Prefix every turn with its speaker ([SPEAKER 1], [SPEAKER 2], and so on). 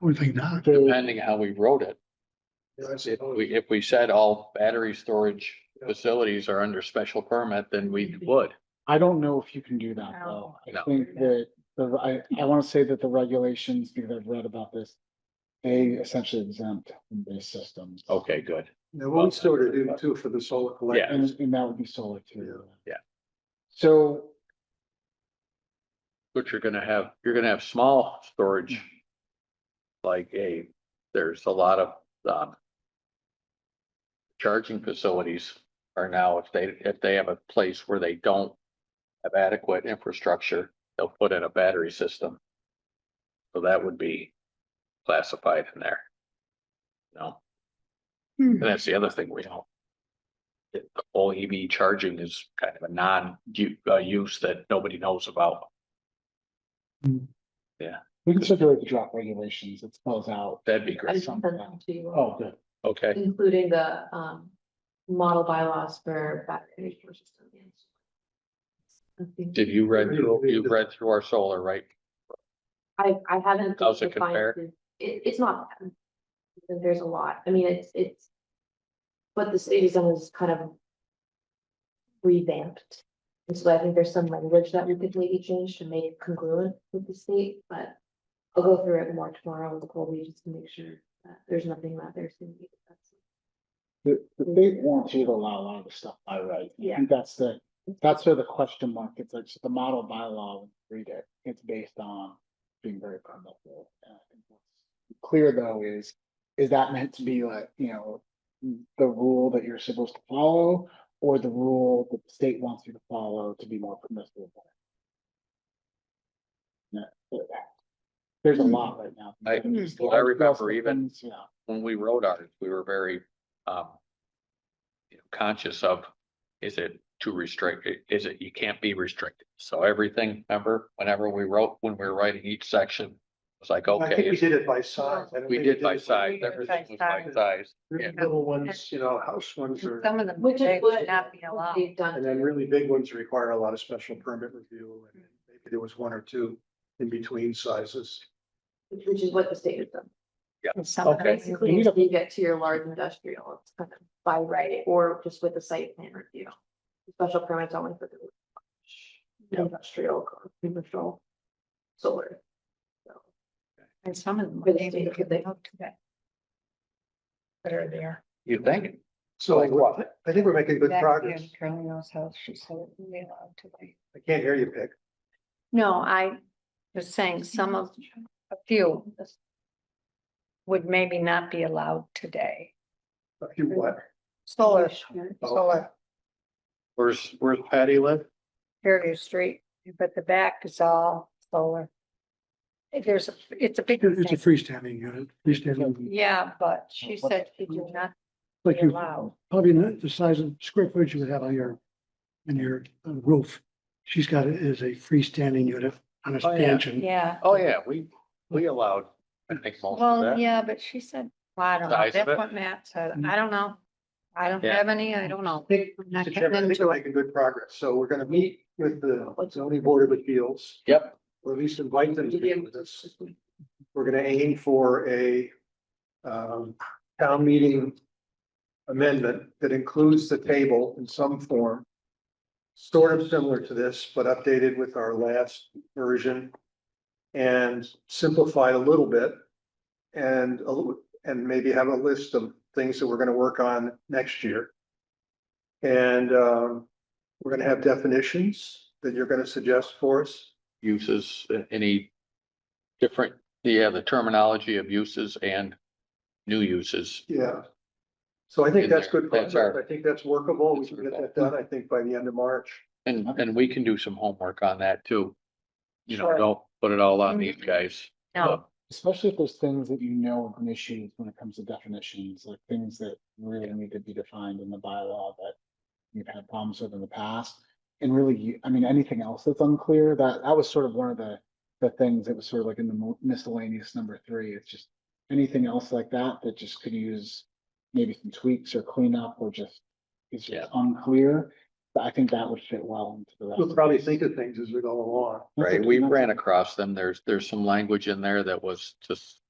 [SPEAKER 1] would think not.
[SPEAKER 2] depending how we wrote it. If we, if we said all battery storage facilities are under special permit, then we would.
[SPEAKER 3] I don't know if you can do that though.
[SPEAKER 4] No.
[SPEAKER 3] I
[SPEAKER 2] No.
[SPEAKER 3] think that, the- I, I want to say that the regulations, because I've read about this, they essentially exempt these systems.
[SPEAKER 2] Okay, good.
[SPEAKER 1] There won't sort of do too for the solar collector.
[SPEAKER 3] And, and that would be solar too.
[SPEAKER 2] Yeah.
[SPEAKER 3] So,
[SPEAKER 2] But you're gonna have, you're gonna have small storage. Like a, there's a lot of, um. Charging facilities are now, if they, if they have a place where they don't have adequate infrastructure, they'll put in a battery system. So that would be classified in there. No,
[SPEAKER 4] Hmm.
[SPEAKER 2] and that's the other thing we know. That the whole EV charging is kind of a non-use that nobody knows about.
[SPEAKER 3] we can circulate the draft regulations. It spells out.
[SPEAKER 2] That'd be
[SPEAKER 4] I
[SPEAKER 2] great.
[SPEAKER 4] sent them to you.
[SPEAKER 3] Oh, good.
[SPEAKER 2] Okay,
[SPEAKER 4] Including the um model bylaws for battery energy systems. I think-
[SPEAKER 2] did you read through, you read through our solar, right?
[SPEAKER 4] I I haven't.
[SPEAKER 2] How's it
[SPEAKER 4] defined
[SPEAKER 2] compare?
[SPEAKER 4] the- It it's not. bad. There's a lot. I mean, it's it's. What the city's done is kind of. Revamped. And so I think there's some language that we could maybe change to make it congruent with the state, but. I'll go through it more tomorrow with the whole just to make sure that there's nothing that there's. gonna be that's-
[SPEAKER 3] The, the state wants you to allow a lot of the stuff by right. I
[SPEAKER 4] Yeah.
[SPEAKER 3] think that's the, that's where the question mark, it's like, so the model bylaw, when you read it, it's based on being very permissible. And I think what's Clear though is, is that meant to be like, you know, the rule that you're supposed to follow? Or the rule that the state wants you to follow to be more permissible? Yeah, There's a lot right now.
[SPEAKER 2] I- I remember even-
[SPEAKER 3] Yeah.
[SPEAKER 2] When we wrote ours, we were very, um. you know, Conscious of, is it too restricted? Is it, you can't be restricted? So everything, remember, whenever we wrote, when we were writing each section, it was like,
[SPEAKER 5] I think we
[SPEAKER 2] okay,
[SPEAKER 5] did it by size. I don't
[SPEAKER 2] we
[SPEAKER 5] think
[SPEAKER 2] did by
[SPEAKER 5] it
[SPEAKER 2] size,
[SPEAKER 6] by
[SPEAKER 2] everything was by
[SPEAKER 6] size.
[SPEAKER 2] size.
[SPEAKER 5] Really
[SPEAKER 2] Yeah.
[SPEAKER 5] Little ones, you know, house ones are,
[SPEAKER 6] Some of them
[SPEAKER 4] Which
[SPEAKER 6] today
[SPEAKER 4] is
[SPEAKER 6] would
[SPEAKER 4] what
[SPEAKER 6] not be allowed.
[SPEAKER 4] they've done.
[SPEAKER 5] and then really big ones require a lot of special permit review. and Maybe there was one or two in between sizes.
[SPEAKER 4] Which is what the state has done.
[SPEAKER 6] Some of
[SPEAKER 2] Okay.
[SPEAKER 6] them,
[SPEAKER 4] Basically, until you get to your large industrial, it's kind of by right or just with a site plan review. Special permits only for the. Industrial, commercial, solar.
[SPEAKER 6] and some of them
[SPEAKER 4] But
[SPEAKER 6] maybe
[SPEAKER 4] they-
[SPEAKER 6] could they hope to that. That are there.
[SPEAKER 2] You think?
[SPEAKER 5] So
[SPEAKER 2] Like
[SPEAKER 5] I I think we're making good
[SPEAKER 6] Back
[SPEAKER 5] progress.
[SPEAKER 6] in Carolina's house, she said it would be allowed to be.
[SPEAKER 5] I can't hear you, Pick.
[SPEAKER 6] No, I was saying some of, a few would maybe not be allowed today.
[SPEAKER 5] If You what?
[SPEAKER 6] Solar,
[SPEAKER 5] Oh.
[SPEAKER 6] solar,
[SPEAKER 2] Where's, where's Patty live?
[SPEAKER 6] Fairview Street, but the back is all solar. There's, a it's a big
[SPEAKER 1] It's a
[SPEAKER 6] thing.
[SPEAKER 1] freestanding unit, freestanding,
[SPEAKER 6] Yeah, but she said she did not
[SPEAKER 1] like
[SPEAKER 6] be
[SPEAKER 1] you,
[SPEAKER 6] allowed.
[SPEAKER 1] probably not the size of square footage you would have on your, in your uh, roof. She's got it as a freestanding unit on a
[SPEAKER 2] Oh, yeah.
[SPEAKER 1] stanchion.
[SPEAKER 6] Yeah,
[SPEAKER 2] Oh, yeah, we, we allowed, I think most of
[SPEAKER 6] well,
[SPEAKER 2] that.
[SPEAKER 6] yeah, but she said, well, I don't know,
[SPEAKER 2] Size of it?
[SPEAKER 6] that's what Matt said, I don't know. I don't
[SPEAKER 2] Mm-hmm. Yeah.
[SPEAKER 6] have any, I don't know.
[SPEAKER 5] I think,
[SPEAKER 6] I'm not
[SPEAKER 5] Mr. Chairman, I think
[SPEAKER 6] getting
[SPEAKER 5] we're
[SPEAKER 6] into it.
[SPEAKER 5] making good progress. So we're gonna meet with the zoning board of appeals,
[SPEAKER 2] Yep,
[SPEAKER 5] or at least invite them to meet with us. We're gonna aim for a um town meeting amendment that includes the table in some form. Sort of similar to this, but updated with our last version. And simplified a little bit. And a little, and maybe have a list of things that we're gonna work on next year. And um, we're gonna have definitions that you're gonna suggest for us.
[SPEAKER 2] uses, uh, any different, yeah, the terminology of uses and new uses.
[SPEAKER 5] Yeah. So I think
[SPEAKER 2] In
[SPEAKER 5] that's
[SPEAKER 2] there.
[SPEAKER 5] good
[SPEAKER 2] That's
[SPEAKER 5] progress.
[SPEAKER 2] our-
[SPEAKER 5] I think that's workable. We
[SPEAKER 2] That's
[SPEAKER 5] can
[SPEAKER 2] our
[SPEAKER 5] get that done, I think, by the end of March.
[SPEAKER 2] And, and we can do some homework on that too. You know,
[SPEAKER 6] Sure.
[SPEAKER 2] don't put it all on these guys.
[SPEAKER 6] No,
[SPEAKER 3] Especially if there's things that you know of an issue when it comes to definitions, like things that really need to be defined in the bylaw that you've had problems with in the past. And really, you- I mean, anything else that's unclear, that, that was sort of one of the, the things that was sort of like in the mo- miscellaneous number three, it's just anything else like that, that just could use maybe some tweaks or cleanup or just, it's
[SPEAKER 2] Yeah.
[SPEAKER 3] just unclear. But I think that would fit well into the rest.
[SPEAKER 5] We'll
[SPEAKER 3] of
[SPEAKER 5] probably
[SPEAKER 3] this.
[SPEAKER 5] think of things as we go along.
[SPEAKER 3] That's
[SPEAKER 2] Right,
[SPEAKER 3] okay,
[SPEAKER 2] we
[SPEAKER 3] that's-
[SPEAKER 2] ran across them. There's, there's some language in there that was just